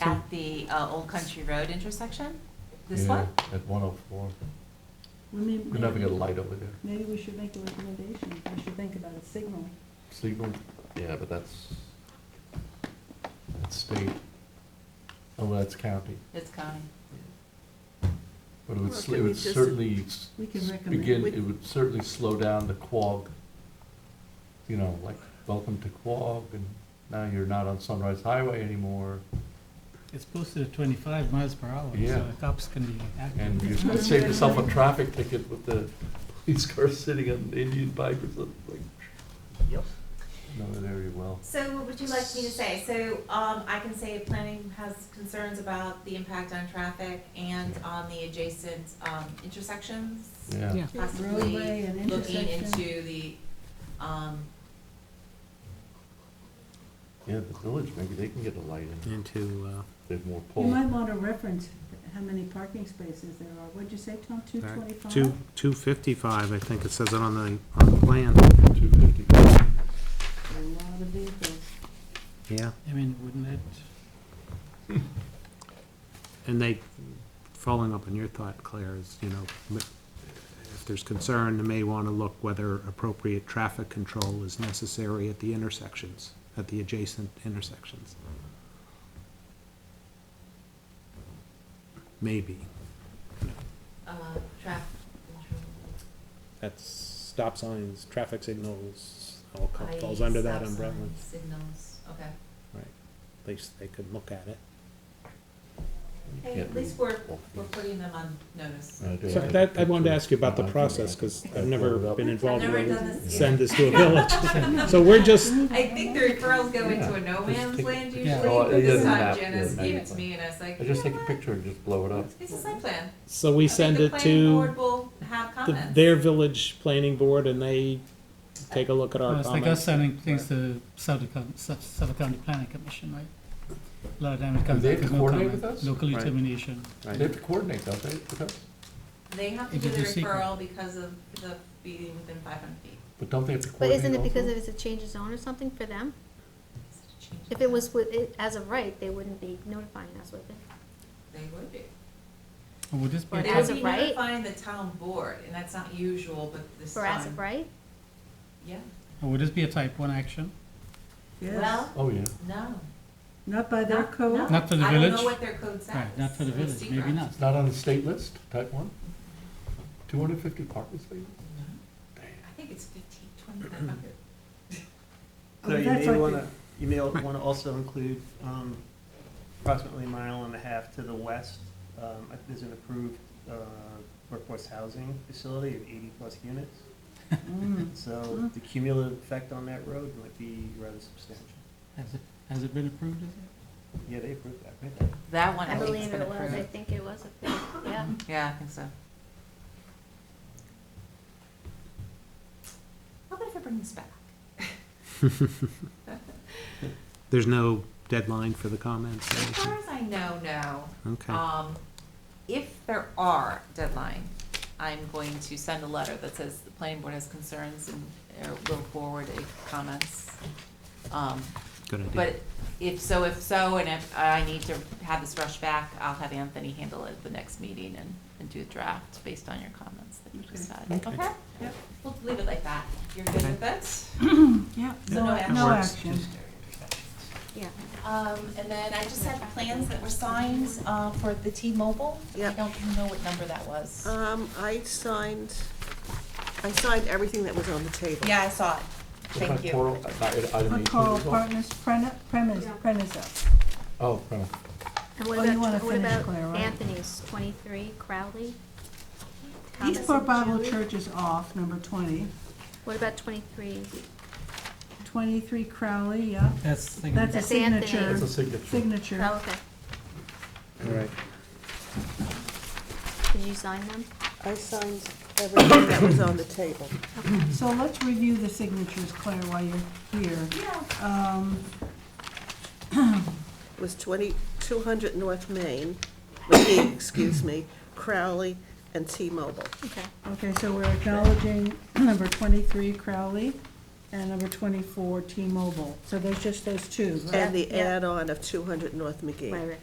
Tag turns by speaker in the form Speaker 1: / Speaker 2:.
Speaker 1: at the uh, Old Country Road intersection? This
Speaker 2: Yeah,
Speaker 1: one?
Speaker 2: At one oh four.
Speaker 3: Well, may-
Speaker 2: We're never gonna
Speaker 3: maybe-
Speaker 2: light over there.
Speaker 3: Maybe we should make a recommendation, we should think about a signal.
Speaker 2: Siegel, yeah, but that's, that's state. Oh, well, that's county.
Speaker 1: It's county.
Speaker 2: But it would,
Speaker 4: Well,
Speaker 2: sl- it
Speaker 4: can we
Speaker 2: would
Speaker 4: just-
Speaker 2: certainly s-
Speaker 3: We can
Speaker 2: s-
Speaker 3: recommend-
Speaker 2: begin,
Speaker 3: we-
Speaker 2: it would certainly slow down the quag. You know, like, welcome to quag, and now you're not on Sunrise Highway anymore,
Speaker 5: It's posted at twenty-five miles per hour,
Speaker 2: Yeah.
Speaker 5: so the cops can be
Speaker 2: and you
Speaker 5: active.
Speaker 2: could save yourself a traffic ticket with the police car sitting on an Indian bike or something, like. Yep. Know that area well.
Speaker 1: So what would you like me to say? So, um, I can say planning has concerns about the impact on traffic and on the adjacent, um, intersections.
Speaker 2: Yeah,
Speaker 3: Roadway
Speaker 1: Possibly
Speaker 3: and
Speaker 1: looking
Speaker 3: intersection.
Speaker 1: into the, um,
Speaker 2: yeah, the village, maybe they can get a light in,
Speaker 4: Into, uh,
Speaker 2: they have more
Speaker 3: You
Speaker 2: poles.
Speaker 3: might want to reference how many parking spaces there are, what'd you say, Tom, two twenty-five?
Speaker 4: two, two fifty-five, I think it says it on the, on the plan,
Speaker 2: Two fifty.
Speaker 3: A lot of vehicles.
Speaker 4: yeah.
Speaker 5: I mean, wouldn't it,
Speaker 4: And they, following up on your thought, Claire, is, you know, m- if there's concern, they may wanna look whether appropriate traffic control is necessary at the intersections, at the adjacent intersections. Maybe.
Speaker 1: uh, traffic.
Speaker 4: That's stop signs, traffic signals, all
Speaker 1: Signals, okay.
Speaker 4: At least they could look at it.
Speaker 1: Hey, at least we're, we're putting them on notice.
Speaker 4: So that, I wanted to ask you about
Speaker 2: Uh,
Speaker 4: the process, because I've never been
Speaker 1: I've
Speaker 4: involved
Speaker 1: never
Speaker 4: in
Speaker 1: done this.
Speaker 4: send this to a
Speaker 2: Oh.
Speaker 4: village. So we're just,
Speaker 1: I think the referrals go into a no
Speaker 2: Yeah.
Speaker 1: man's
Speaker 2: Just
Speaker 1: land
Speaker 2: take-
Speaker 1: usually,
Speaker 5: Yeah.
Speaker 2: Oh,
Speaker 1: but
Speaker 2: it
Speaker 1: this
Speaker 2: doesn't
Speaker 1: time
Speaker 2: have-
Speaker 1: Janice
Speaker 2: yeah,
Speaker 1: gave
Speaker 2: no,
Speaker 1: it to me and I was like,
Speaker 2: I
Speaker 1: you know
Speaker 2: just take a
Speaker 1: what?
Speaker 2: picture and just blow it up.
Speaker 1: It's a site plan.
Speaker 4: so we
Speaker 1: I think
Speaker 4: send
Speaker 1: the
Speaker 4: it
Speaker 1: planning
Speaker 4: to
Speaker 1: board will have
Speaker 4: the-
Speaker 1: comments.
Speaker 4: their village planning board, and they take a look at
Speaker 5: well,
Speaker 4: our
Speaker 5: it's like us
Speaker 4: comments.
Speaker 5: sending things to Suffolk County, Suf- Suffolk County Planning Commission, right? A lot of time it comes
Speaker 2: they
Speaker 5: back with no
Speaker 2: coordinate
Speaker 5: comment,
Speaker 2: with us?
Speaker 5: local
Speaker 4: Right.
Speaker 5: determination.
Speaker 2: They have to coordinate, don't they, with us?
Speaker 1: They have to
Speaker 5: If
Speaker 1: do
Speaker 5: it's
Speaker 1: the
Speaker 5: a secret.
Speaker 1: referral because of the being within five hundred feet.
Speaker 2: But don't they have to
Speaker 6: But
Speaker 2: coordinate
Speaker 6: isn't it because
Speaker 2: also?
Speaker 6: if it's a change of zone or something for them?
Speaker 1: It's a change
Speaker 6: If
Speaker 1: of
Speaker 6: it
Speaker 1: that.
Speaker 6: was with, it- as of right, they wouldn't be notifying us with it.
Speaker 1: They would be.
Speaker 5: Would this be a
Speaker 1: But
Speaker 6: But
Speaker 1: as
Speaker 6: as
Speaker 5: topic?
Speaker 6: of
Speaker 1: we
Speaker 6: right-
Speaker 1: notifying the town board, and that's not usual, but this
Speaker 6: For as
Speaker 1: time,
Speaker 6: of right?
Speaker 1: yeah.
Speaker 5: Would this be a type one action?
Speaker 3: Yes,
Speaker 1: Well,
Speaker 2: Oh, yeah.
Speaker 1: no.
Speaker 3: not by their
Speaker 1: Not- no.
Speaker 3: code.
Speaker 5: Not for the
Speaker 1: I don't know
Speaker 5: village?
Speaker 1: what their code says.
Speaker 5: Right, not for the
Speaker 1: so it's
Speaker 5: village, maybe
Speaker 1: secret.
Speaker 5: not.
Speaker 2: It's not on the state list, type one? Two hundred fifty parking spaces?
Speaker 1: I think it's fifteen, twenty-five hundred.
Speaker 3: Oh,
Speaker 7: So you
Speaker 3: that's
Speaker 7: may
Speaker 3: like the-
Speaker 7: wanna, you may wanna also include, um, approximately a mile and a half to the west, um, there's an approved, uh, workforce housing facility of eighty plus units.
Speaker 3: Mm.
Speaker 1: Mm-hmm.
Speaker 7: So the cumulative effect on that road might be rather substantial.
Speaker 5: Has it, has it been approved, is it?
Speaker 7: Yeah, they approved that, right?
Speaker 1: That one,
Speaker 6: I
Speaker 1: I think it's
Speaker 6: believe
Speaker 1: been
Speaker 6: it was, I
Speaker 1: approved.
Speaker 6: think it was a thing, yeah.
Speaker 1: Yeah, I think so. How about if I bring this back?
Speaker 4: There's no deadline for the comments,
Speaker 1: As
Speaker 4: or
Speaker 1: far as I know, no.
Speaker 4: anything? okay.
Speaker 1: Um, if there are deadline, I'm going to send a letter that says the planning board has concerns and, or will forward a comments. Um,
Speaker 4: Good idea.
Speaker 1: but if so, if so, and if I need to have this rushed back, I'll have Anthony handle it at the next meeting and, and do a draft based on your comments that you just had,
Speaker 4: Okay.
Speaker 1: okay?
Speaker 3: Yep.
Speaker 1: We'll leave it like that. You're good with it?
Speaker 3: Yeah,
Speaker 1: So no action.
Speaker 3: no action.
Speaker 6: Yeah.
Speaker 1: Um, and then I just had plans that were signed, uh, for the T-Mobile. I
Speaker 8: Yep.
Speaker 1: don't know what number that was.
Speaker 8: Um, I signed, I signed everything that was on the table.
Speaker 1: Yeah, I saw it. Thank you.
Speaker 2: Coral- uh, not- item
Speaker 3: For
Speaker 2: 18
Speaker 3: Coral
Speaker 2: as well?
Speaker 3: Partners, premise, premise,
Speaker 6: Yeah.
Speaker 3: premise up.
Speaker 2: Oh, premise.
Speaker 6: And what
Speaker 3: Oh, you wanna
Speaker 6: about, what
Speaker 3: finish,
Speaker 6: about
Speaker 3: Claire, right?
Speaker 6: Anthony's twenty-three Crowley? Thomas
Speaker 3: Eastport
Speaker 6: and
Speaker 3: Bible
Speaker 6: Julie?
Speaker 3: Church is off, number twenty.
Speaker 6: What about twenty-three?
Speaker 3: Twenty-three Crowley, yeah,
Speaker 5: That's, the thing.
Speaker 3: that's a
Speaker 6: That's Anthony.
Speaker 3: signature,
Speaker 2: That's a signature.
Speaker 3: signature.
Speaker 6: Oh, okay.
Speaker 4: All right.
Speaker 6: Did you sign them?
Speaker 8: I signed everything that was on the table.
Speaker 3: So let's review the signatures, Claire, while you're here. Um,
Speaker 8: It was 20, 200 North Main, McGee, excuse me, Crowley, and T-Mobile.
Speaker 6: Okay.
Speaker 3: Okay, so we're acknowledging number twenty-three Crowley and number twenty-four T-Mobile. So there's just those two, right?
Speaker 8: And the
Speaker 6: Yeah.
Speaker 8: add-on of 200 North McGee.
Speaker 6: Right, right.